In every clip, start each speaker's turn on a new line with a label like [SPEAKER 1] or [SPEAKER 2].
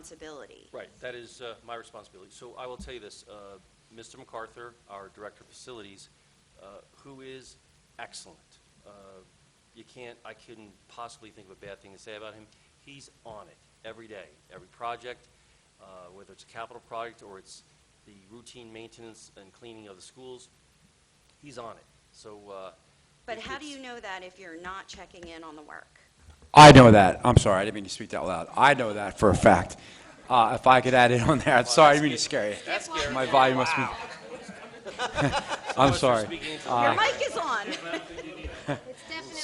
[SPEAKER 1] responsibility.
[SPEAKER 2] Right, that is uh, my responsibility. So I will tell you this, uh, Mr. MacArthur, our Director of Facilities, uh, who is excellent. Uh, You can't, I couldn't possibly think of a bad thing to say about him. He's on it every day, every project, uh, whether it's a capital project or it's the routine maintenance and cleaning of the schools, he's on it. So. uh,
[SPEAKER 1] But
[SPEAKER 2] if
[SPEAKER 1] how do
[SPEAKER 2] it's-
[SPEAKER 1] you know that if you're not checking in on the work?
[SPEAKER 3] I know that. I'm sorry, I didn't mean to speak that loud. I know that for a fact. Uh, if I could add it on there, I'm sorry, I didn't mean to scare you.
[SPEAKER 2] That's scary.
[SPEAKER 3] My volume must be. I'm
[SPEAKER 2] Unless you're
[SPEAKER 3] sorry.
[SPEAKER 2] speaking into-
[SPEAKER 1] Your mic is on.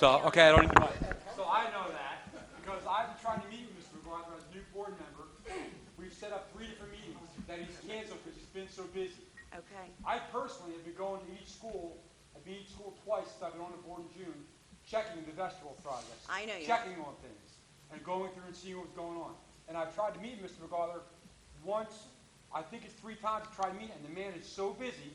[SPEAKER 3] So, okay, I don't even.
[SPEAKER 4] So I know that because I've been trying to meet with Mr. McGuire as a new board member. We've set up three different meetings that he's canceled because he's been so busy.
[SPEAKER 1] Okay.
[SPEAKER 4] I personally have been going to each school, I've been to each school twice since I've been on the board in June, checking the vegetable projects.
[SPEAKER 1] I know you have.
[SPEAKER 4] Checking on things and going through and seeing what's going on. And I've tried to meet Mr. McGuire once, I think it's three times I've tried to meet, and the man is so busy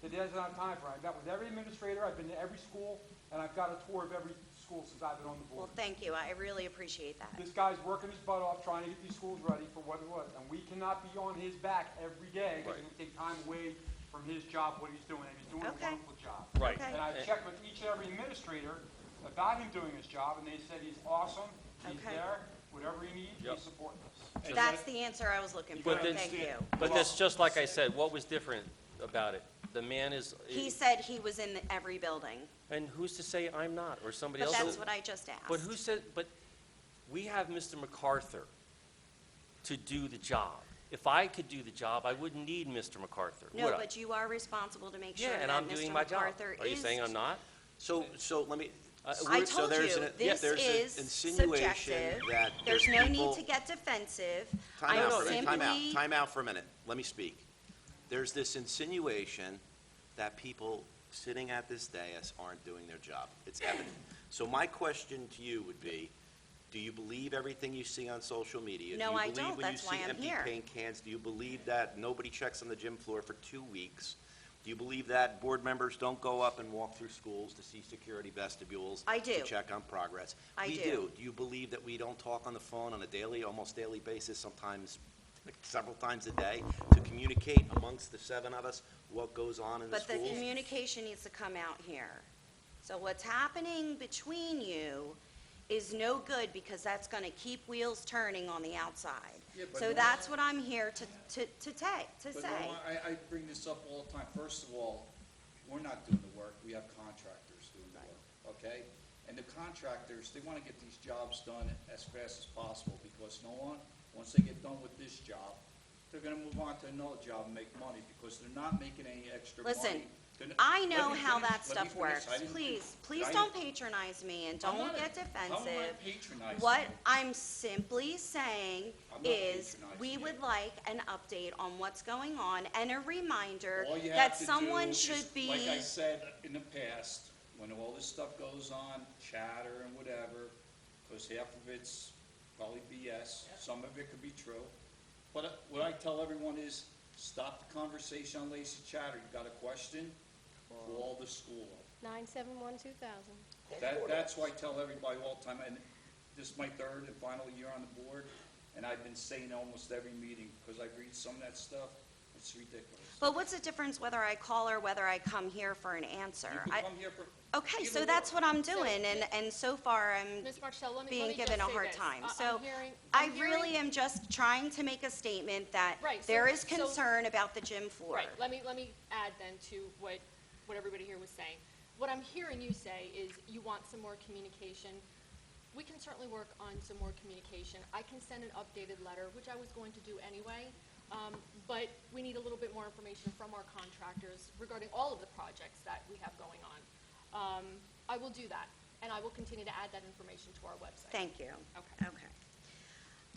[SPEAKER 4] that he doesn't have time for it. I've met with every administrator, I've been to every school, and I've got a tour of every school since I've been on the board.
[SPEAKER 1] Well, thank you. I really appreciate that.
[SPEAKER 4] This guy's working his butt off trying to get these schools ready for what it was, and we cannot be on his back every day, because it's gonna take time away from his job, what he's doing, and he's doing a
[SPEAKER 1] Okay.
[SPEAKER 4] wonderful job.
[SPEAKER 2] Right.
[SPEAKER 1] Okay.
[SPEAKER 4] And I've checked with each and every administrator about him doing his job, and they said he's awesome, he's
[SPEAKER 1] Okay.
[SPEAKER 4] there, whatever he needs,
[SPEAKER 2] Yep.
[SPEAKER 4] he's supporting us.
[SPEAKER 1] That's the answer I was looking for.
[SPEAKER 2] But then-
[SPEAKER 1] Thank you.
[SPEAKER 2] But that's just like I said, what was different about it? The man is.
[SPEAKER 1] He said he was in every building,
[SPEAKER 2] And who's to say I'm not, or somebody
[SPEAKER 1] but
[SPEAKER 2] else?
[SPEAKER 1] that's
[SPEAKER 2] is?
[SPEAKER 1] what I just asked.
[SPEAKER 2] But who said, but we have Mr. MacArthur to do the job. If I could do the job, I wouldn't need Mr. MacArthur, would I?
[SPEAKER 1] No, but you are responsible to make sure
[SPEAKER 2] Yeah,
[SPEAKER 1] that
[SPEAKER 2] and I'm doing
[SPEAKER 1] Mr.
[SPEAKER 2] my job.
[SPEAKER 1] MacArthur is.
[SPEAKER 2] Are you saying I'm not?
[SPEAKER 5] So, so let me.
[SPEAKER 2] I-
[SPEAKER 5] so
[SPEAKER 1] I
[SPEAKER 2] We're-
[SPEAKER 1] told
[SPEAKER 5] there's
[SPEAKER 1] you,
[SPEAKER 5] an- yeah,
[SPEAKER 1] this
[SPEAKER 5] there's an
[SPEAKER 1] is
[SPEAKER 5] insinuation
[SPEAKER 1] subjective.
[SPEAKER 5] that
[SPEAKER 1] There's no need
[SPEAKER 5] people-
[SPEAKER 1] to get defensive.
[SPEAKER 5] Time out
[SPEAKER 1] I'm
[SPEAKER 5] for a minute, time out,
[SPEAKER 1] simply-
[SPEAKER 5] time out for a minute. Let me speak. There's this insinuation that people sitting at this dais aren't doing their job. It's evident. So my question to you would be, do you believe everything you see on social media?
[SPEAKER 1] No, I
[SPEAKER 5] Do you
[SPEAKER 1] don't.
[SPEAKER 5] believe when you
[SPEAKER 1] That's why
[SPEAKER 5] see
[SPEAKER 1] I'm
[SPEAKER 5] empty
[SPEAKER 1] here.
[SPEAKER 5] paint cans? Do you believe that nobody checks on the gym floor for two weeks? Do you believe that board members don't go up and walk through schools to see security vestibules?
[SPEAKER 1] I do.
[SPEAKER 5] To check on progress?
[SPEAKER 1] I
[SPEAKER 5] We
[SPEAKER 1] do.
[SPEAKER 5] do. Do you believe that we don't talk on the phone on a daily, almost daily basis, sometimes like several times a day, to communicate amongst the seven of us what goes on in the
[SPEAKER 1] But the
[SPEAKER 5] schools?
[SPEAKER 1] communication needs to come out here. So what's happening between you is no good because that's gonna keep wheels turning on the outside. So that's what I'm here to, to, to ta, to
[SPEAKER 6] But
[SPEAKER 1] say.
[SPEAKER 6] Norma, I, I bring this up all the time. First of all, we're not doing the work, we have contractors doing the work, okay? And the contractors, they wanna get these jobs done as fast as possible, because no one, once they get done with this job, they're gonna move on to another job and make money, because they're not making any extra money.
[SPEAKER 1] Listen,
[SPEAKER 6] They're n-
[SPEAKER 1] I
[SPEAKER 6] Let me
[SPEAKER 1] know how
[SPEAKER 6] finish-
[SPEAKER 1] that
[SPEAKER 6] let me
[SPEAKER 1] stuff
[SPEAKER 6] finish. I
[SPEAKER 1] works.
[SPEAKER 6] didn't-
[SPEAKER 1] Please,
[SPEAKER 6] I
[SPEAKER 1] please
[SPEAKER 6] didn't-
[SPEAKER 1] don't patronize me and
[SPEAKER 6] I'm
[SPEAKER 1] don't
[SPEAKER 6] not-
[SPEAKER 1] get
[SPEAKER 6] how am I
[SPEAKER 1] defensive.
[SPEAKER 6] patronizing
[SPEAKER 1] What
[SPEAKER 6] you?
[SPEAKER 1] I'm simply saying
[SPEAKER 6] I'm not
[SPEAKER 1] is, we
[SPEAKER 6] patronizing
[SPEAKER 1] would
[SPEAKER 6] you.
[SPEAKER 1] like an update on what's going on and a reminder
[SPEAKER 6] All you
[SPEAKER 1] that
[SPEAKER 6] have to do
[SPEAKER 1] someone
[SPEAKER 6] is,
[SPEAKER 1] should be.
[SPEAKER 6] Like I said in the past, when all this stuff goes on, chatter and whatever, because half of it's probably BS, some of it could be true. But uh, what I tell everyone is, stop the conversation on lazy chatter. You got a question? Call the school.
[SPEAKER 7] Nine seven one two thousand.
[SPEAKER 6] That, that's why I tell everybody all the time, and this is my third and final year on the board, and I've been saying almost every meeting, because I read some of that stuff, it's ridiculous.
[SPEAKER 1] But what's the difference whether I call or whether I come here for an answer?
[SPEAKER 6] You
[SPEAKER 1] I-
[SPEAKER 6] can come here for.
[SPEAKER 1] Okay,
[SPEAKER 6] either
[SPEAKER 1] so
[SPEAKER 6] or.
[SPEAKER 1] that's what I'm doing, and, and so far, I'm
[SPEAKER 7] Ms. Marcel, let me, let
[SPEAKER 1] being
[SPEAKER 7] me just
[SPEAKER 1] given a
[SPEAKER 7] say
[SPEAKER 1] hard
[SPEAKER 7] this.
[SPEAKER 1] time.
[SPEAKER 7] I- I'm
[SPEAKER 1] So
[SPEAKER 7] hearing-
[SPEAKER 1] I
[SPEAKER 7] I'm
[SPEAKER 1] really
[SPEAKER 7] hearing-
[SPEAKER 1] am just trying to make a statement that
[SPEAKER 7] Right, so-
[SPEAKER 1] there is
[SPEAKER 7] so-
[SPEAKER 1] concern about the gym floor.
[SPEAKER 7] Right, let me, let me add then to what, what everybody here was saying. What I'm hearing you say is you want some more communication. We can certainly work on some more communication. I can send an updated letter, which I was going to do anyway. Um, but we need a little bit more information from our contractors regarding all of the projects that we have going on. Um, I will do that, and I will continue to add that information to our website.
[SPEAKER 1] Thank you.
[SPEAKER 7] Okay.
[SPEAKER 1] Okay.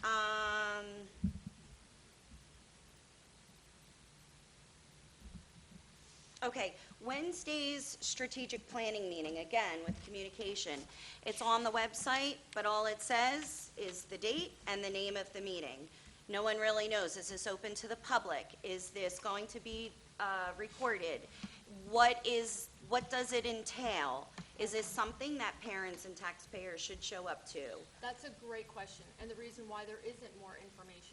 [SPEAKER 1] Um, okay, Wednesday's strategic planning meeting, again, with communication. It's on the website, but all it says is the date and the name of the meeting. No one really knows. Is this open to the public? Is this going to be, uh, recorded? What is, what does it entail? Is this something that parents and taxpayers should show up to?
[SPEAKER 7] That's a great question, and the reason why there isn't more information